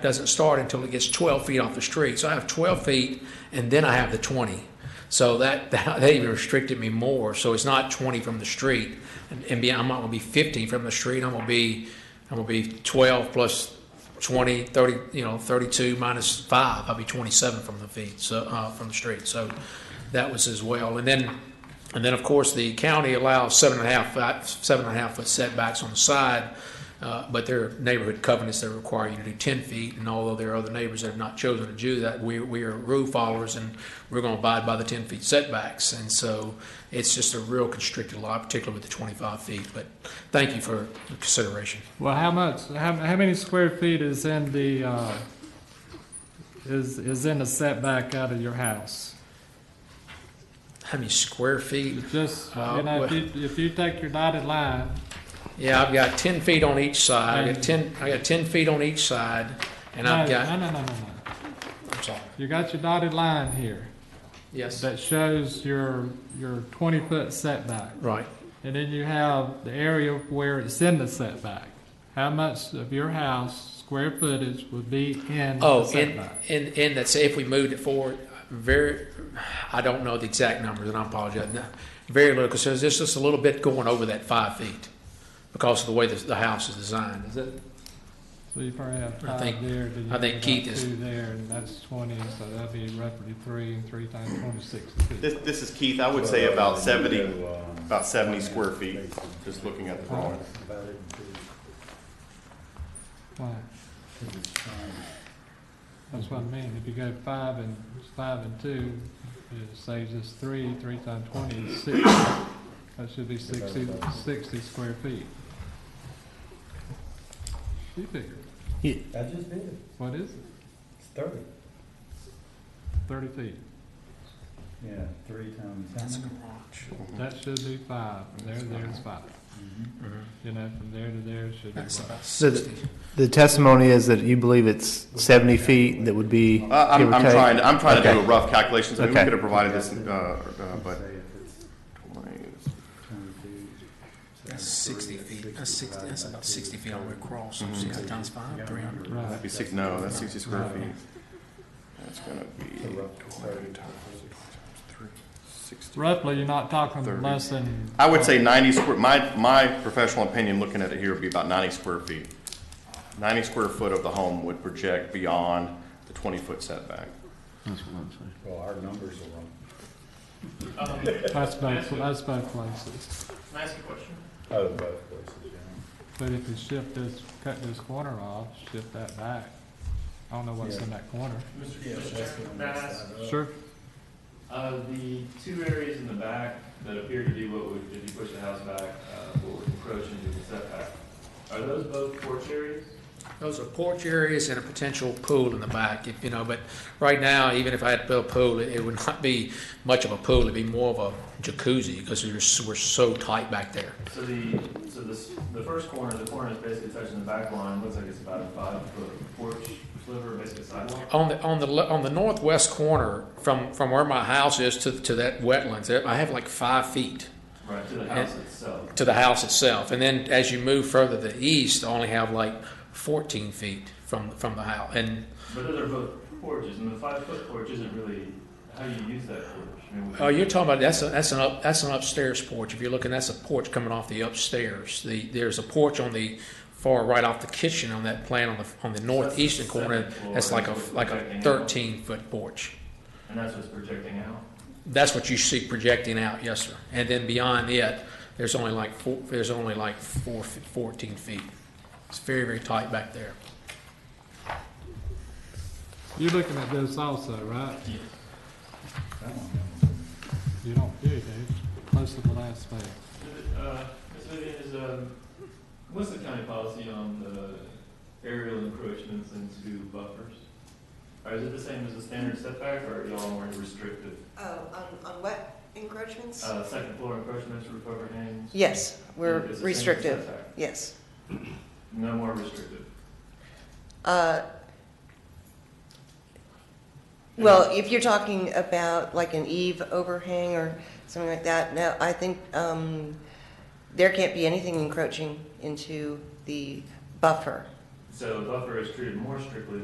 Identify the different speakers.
Speaker 1: doesn't start until it gets 12 feet off the street. So I have 12 feet, and then I have the 20. So that, that that even restricted me more. So it's not 20 from the street, and, and be, I'm not gonna be 15 from the street. I'm gonna be I'm gonna be 12 plus 20, 30, you know, 32 minus five. I'll be 27 from the feet. So uh, from the street. So that was as well. And then and then, of course, the county allows seven and a half, fi- seven and a half foot setbacks on the side, uh, but there are neighborhood covenants that require you to do ten feet. And although there are other neighbors that have not chosen to do that, we, we are rule followers and we're gonna abide by the ten feet setbacks. And so it's just a real constricted law, particularly with the twenty-five feet. But thank you for the consideration.
Speaker 2: Well, how much, how, how many square feet is in the, uh, is, is in the setback out of your house?
Speaker 1: How many square feet?
Speaker 2: It's just,
Speaker 1: Uh,
Speaker 2: you know, if you, if you take your dotted line,
Speaker 1: Yeah, I've got ten feet on each side. I got ten, I got ten feet on each side and
Speaker 2: no,
Speaker 1: I've
Speaker 2: no,
Speaker 1: got,
Speaker 2: no, no, no, no.
Speaker 1: I'm sorry.
Speaker 2: You got your dotted line here
Speaker 1: Yes,
Speaker 2: that shows your, your twenty-foot setback.
Speaker 1: right.
Speaker 2: And then you have the area where it's in the setback. How much of your house, square footage, would be in the
Speaker 1: Oh, and,
Speaker 2: setback?
Speaker 1: and, and that's if we moved it forward, very, I don't know the exact numbers, and I apologize. No, Very little, because there's just a little bit going over that five feet because of the way the, the house is designed. Is it?
Speaker 2: So you probably have
Speaker 1: I think-
Speaker 2: five there, then you
Speaker 1: I
Speaker 2: have
Speaker 1: think
Speaker 2: about
Speaker 1: Keith is-
Speaker 2: two there, and that's twenty, so that'd be roughly three, and three times twenty-six is fifty.
Speaker 3: This, this is Keith, I would say about seventy, about seventy square feet, just looking at the drawing.
Speaker 2: Why? That's what I mean, if you go five and, five and two, it saves us three, three times twenty is sixty. That should be sixty, sixty square feet. You figure,
Speaker 4: I just did it.
Speaker 2: what is it?
Speaker 4: It's thirty.
Speaker 2: Thirty feet.
Speaker 4: Yeah, three times. how many?
Speaker 2: That should be five, there, there's five.
Speaker 4: Mhm.
Speaker 2: You know, from there to there should be
Speaker 1: That's
Speaker 2: five.
Speaker 1: about
Speaker 5: So the-
Speaker 1: 60.
Speaker 5: The testimony is that you believe it's 70 feet that would be, give
Speaker 3: Uh, I'm,
Speaker 5: or
Speaker 3: I'm
Speaker 5: take?
Speaker 3: trying, I'm trying to do a
Speaker 5: Okay.
Speaker 3: rough calculation, so we
Speaker 5: Okay.
Speaker 3: could have provided this, uh, uh,
Speaker 4: Let's
Speaker 3: but.
Speaker 4: Say if it's twenty-two.
Speaker 1: That's sixty feet, that's sixty, that's about sixty feet all the way across, so
Speaker 5: Mm-hmm.
Speaker 3: Mhm.
Speaker 1: sixty times five, three hundred.
Speaker 2: Right.
Speaker 3: That'd be six, no, that's sixty square
Speaker 2: No.
Speaker 3: feet. That's gonna be
Speaker 4: It's a rough
Speaker 3: twenty
Speaker 4: thirty.
Speaker 3: times three, sixty.
Speaker 2: Roughly, you're not talking
Speaker 3: Thirty.
Speaker 2: less than.
Speaker 3: I would say ninety square, my, my professional opinion, looking at it here, would be about ninety square feet. Ninety square foot of the home would project beyond the twenty-foot setback.
Speaker 4: Well, our numbers are wrong.
Speaker 2: That's both, that's both places.
Speaker 4: Oh, both places, yeah.
Speaker 2: But if you shift this, cut this corner off, shift that back, I don't know what's in that corner.
Speaker 4: Yeah, that's the one
Speaker 6: May I
Speaker 4: that's
Speaker 6: ask,
Speaker 4: not up.
Speaker 2: Sure.
Speaker 6: uh, the two areas in the back that appear to be what would, if you push the house back, uh, what would encroach into the setback, are those both porch areas?
Speaker 1: Those are porch areas and a potential pool in the back, if, you know, but right now, even if I had to build a pool, it it would not be much of a pool, it'd be more of a jacuzzi, because we're, s- we're so tight back there.
Speaker 6: So the, so this, the first corner, the corner is basically touching the back line, looks like it's about a five foot porch sliver, basically sidewalk.
Speaker 1: On the, on the, le- on the northwest corner, from, from where my house is to, to that wetlands, there- I have like five feet
Speaker 6: Right, to the house itself.
Speaker 1: to the house itself. And then as you move further to the east, I only have like fourteen feet from, from the house. And,
Speaker 6: But those are both porches, and the five foot porch isn't really, how do you use that porch? I mean, would
Speaker 1: oh,
Speaker 6: you-
Speaker 1: you're talking about, that's, a- that's an up, that's an upstairs porch. If you're looking, that's a porch coming off the upstairs. The, there's a porch on the far right off the kitchen on that plan on the, on the northeastern corner. That's like a, like a thirteen foot porch.
Speaker 6: And that's what's projecting out?
Speaker 1: That's what you see projecting out, yes, sir. And then beyond it, there's only like four, there's only like four, fe- fourteen feet. It's very, very tight back there.
Speaker 2: You're looking at this also, right?
Speaker 4: I don't know.
Speaker 2: You don't, you do, close to the last page.
Speaker 6: Uh, Ms. Vivian, is, um, what's the county policy on the aerial encroachments into buffers? Or is it the same as the standard setback, or are y'all more restrictive?
Speaker 7: Oh, on, on what encroachments?
Speaker 6: Uh, second floor encroachments, roof overhangs?
Speaker 7: Yes,
Speaker 6: Is
Speaker 7: we're
Speaker 6: it the same as
Speaker 7: restrictive,
Speaker 6: setback?
Speaker 7: yes.
Speaker 6: No more restrictive.
Speaker 7: Uh, Well, if you're talking about like an eave overhang or something like that, no, I think um, there can't be anything encroaching into the buffer.
Speaker 6: So buffer is treated more strictly